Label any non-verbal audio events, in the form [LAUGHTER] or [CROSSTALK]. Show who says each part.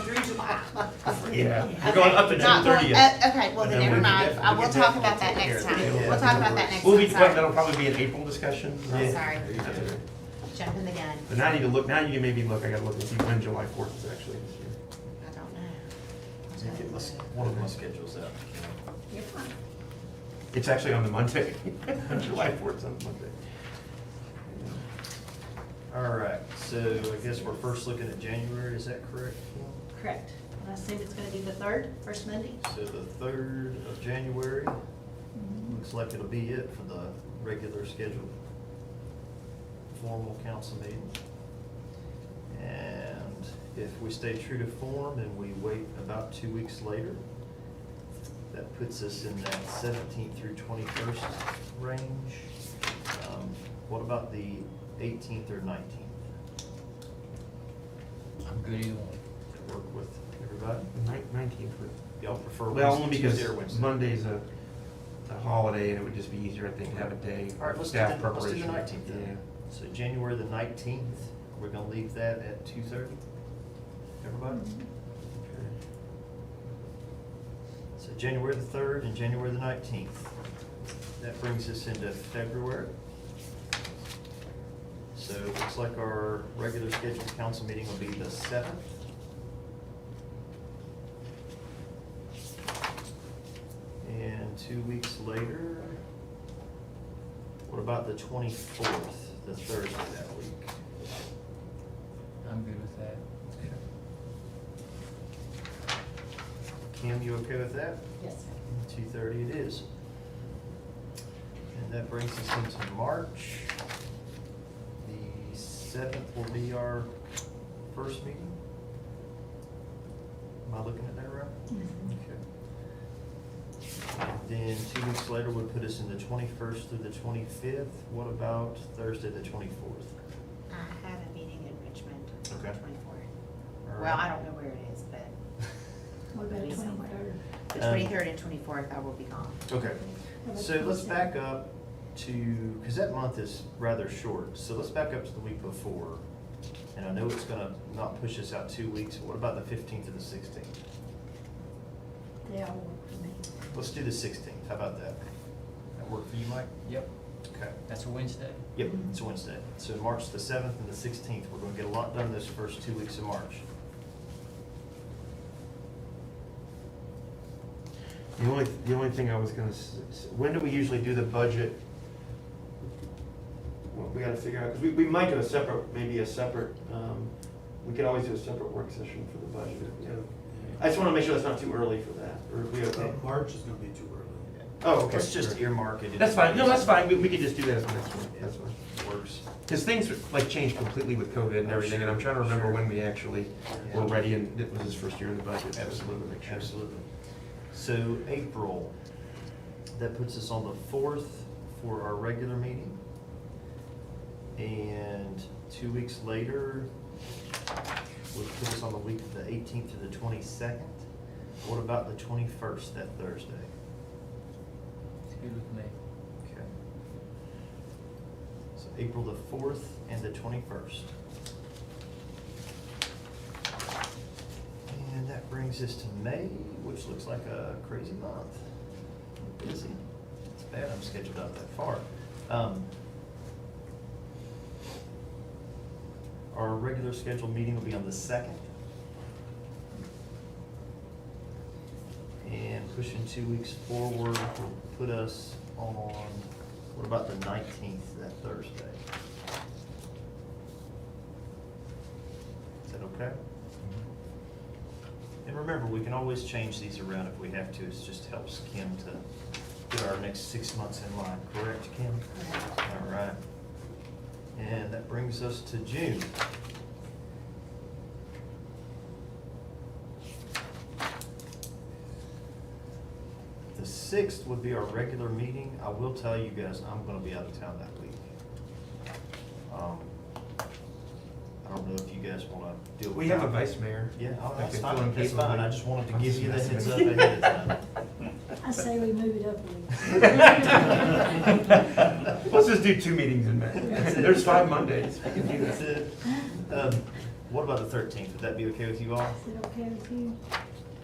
Speaker 1: Yeah.
Speaker 2: We're going up
Speaker 3: Okay.
Speaker 2: to June
Speaker 3: Not- well,
Speaker 2: thirtieth.
Speaker 3: uh, Okay, well then
Speaker 2: And then
Speaker 3: never
Speaker 2: we can
Speaker 3: mind,
Speaker 2: get-
Speaker 3: I
Speaker 2: we
Speaker 3: will
Speaker 2: can
Speaker 3: talk
Speaker 2: get-
Speaker 3: about that next
Speaker 2: Yeah.
Speaker 3: time, we'll talk about that next
Speaker 2: We'll be,
Speaker 3: time,
Speaker 2: but that'll
Speaker 3: sorry.
Speaker 2: probably be an April discussion.
Speaker 4: Oh,
Speaker 1: Yeah.
Speaker 3: Sorry,
Speaker 2: That's okay.
Speaker 3: jumping the gun,
Speaker 2: But now I need to look, now you made me look, I gotta look and see when July fourth is actually. this year.
Speaker 3: I don't know.
Speaker 5: You get my, s- one of my schedules out.
Speaker 3: You're fine.
Speaker 2: It's actually on the Monday, [LAUGHS] July fourth on Monday.
Speaker 5: All right, so I guess we're first looking at January, is that correct?
Speaker 4: Correct. I assume it's gonna be the third, first Monday?
Speaker 5: So the third of January,
Speaker 4: Mm-hmm.
Speaker 5: looks like it'll be it for the regular scheduled formal council meeting. And if we stay true to form and we wait about two weeks later, that puts us in that seventeenth through twenty-first range. Um, What about the eighteenth or nineteenth?
Speaker 6: I'm good either way.
Speaker 5: That work with everybody?
Speaker 2: Nineteenth.
Speaker 5: Y'all prefer
Speaker 2: Well, only
Speaker 5: Wednesday,
Speaker 2: because
Speaker 5: Tuesday or Wednesday?
Speaker 2: Monday's a, a holiday and it would just be easier, I think, to have a day
Speaker 5: All right,
Speaker 2: of
Speaker 5: let's do
Speaker 2: staff
Speaker 5: the, let's do
Speaker 2: preparation.
Speaker 5: the nineteenth then. So January the nineteenth, we're gonna leave that at two thirty? Everybody? So January the third and January the nineteenth. That brings us into February. So it looks like our regular scheduled council meeting will be the seventh. And two weeks later, what about the twenty-fourth, the Thursday that week?
Speaker 6: I'm good with that.
Speaker 5: Kim, you okay with that?
Speaker 4: Yes, sir.
Speaker 5: Two thirty it is. And that brings us into March. The seventh will be our first meeting. Am I looking at that right?
Speaker 3: Mm-hmm.
Speaker 5: Okay. Then two weeks later would put us in the twenty-first through the twenty-fifth. What about Thursday, the twenty-fourth?
Speaker 3: I have a meeting in Richmond on
Speaker 5: Okay.
Speaker 3: twenty-fourth.
Speaker 5: All
Speaker 3: Well, I
Speaker 5: right. [LAUGHS]
Speaker 3: don't know where it is, but
Speaker 4: What about
Speaker 3: Maybe somewhere.
Speaker 4: twenty-third?
Speaker 3: the
Speaker 5: Um,
Speaker 3: twenty-third and twenty-fourth I will be gone.
Speaker 5: Okay, so let's back up to, because that month is rather short, so let's back up to the week before. And I know it's gonna not push us out two weeks, but what about the fifteenth and the sixteenth?
Speaker 4: They all work for me.
Speaker 5: Let's do the sixteenth, how about that? That work for you, Mike?
Speaker 6: Yep,
Speaker 5: Okay.
Speaker 6: that's a Wednesday.
Speaker 5: Yep, it's Wednesday. So March the seventh and the sixteenth, we're gonna get a lot done those first two weeks of March.
Speaker 2: The only, the only thing I was gonna, s- s- when do we usually do the budget? Well, we gotta figure out, 'cause we, we might do a separate, maybe a separate, um, we could always do a separate work session for the budget. you know. I just wanna make sure that's not too early for that, or we okay?
Speaker 1: March is gonna be too early.
Speaker 2: Oh, okay.
Speaker 5: Let's just earmark it.
Speaker 2: That's fine, no, that's fine, we, we could just do that as the next one,
Speaker 5: Yeah,
Speaker 2: that's fine.
Speaker 5: Works.
Speaker 2: Because things like changed completely with COVID and
Speaker 5: Oh,
Speaker 2: everything, and I'm
Speaker 5: sure,
Speaker 2: trying to remember
Speaker 5: sure.
Speaker 2: when we actually were ready, and it was his first year in the budget. so I just wanted to
Speaker 5: Absolutely,
Speaker 2: make sure.
Speaker 5: absolutely. So April, that puts us on the fourth for our regular meeting. And two weeks later, would put us on the week of the eighteenth to the twenty-second. What about the twenty-first, that Thursday?
Speaker 6: It's good with me.
Speaker 5: Okay. So April the fourth and the twenty-first. And that brings us to May, which looks like a crazy month. Busy. It's bad I'm scheduled out that far. Um, Our regular scheduled meeting will be on the second. And pushing two weeks forward will put us on, what about the nineteenth, that Thursday? Is that okay? And remember, we can always change these around if we have to, it just helps Kim to get our next six months in line, correct, Kim? All right. And that brings us to June. The sixth would be our regular meeting. I will tell you guys, I'm gonna be out of town that week. Um, I don't know if you guys wanna deal with
Speaker 2: We have a
Speaker 5: that.
Speaker 2: vice mayor.
Speaker 5: Yeah, oh,
Speaker 2: that
Speaker 5: that's
Speaker 2: can fill
Speaker 5: fine,
Speaker 2: in
Speaker 5: that's
Speaker 2: case of-
Speaker 5: fine, I just wanted to give you the heads up ahead of time. [LAUGHS]
Speaker 4: I say we move it up a week.
Speaker 2: [LAUGHS] Let's just do two meetings in May.
Speaker 5: That's it.
Speaker 2: There's five Mondays. We can do
Speaker 5: That's
Speaker 2: that.
Speaker 5: it. Um, What about the thirteenth? Would that be okay with you all?
Speaker 4: Is it okay with you?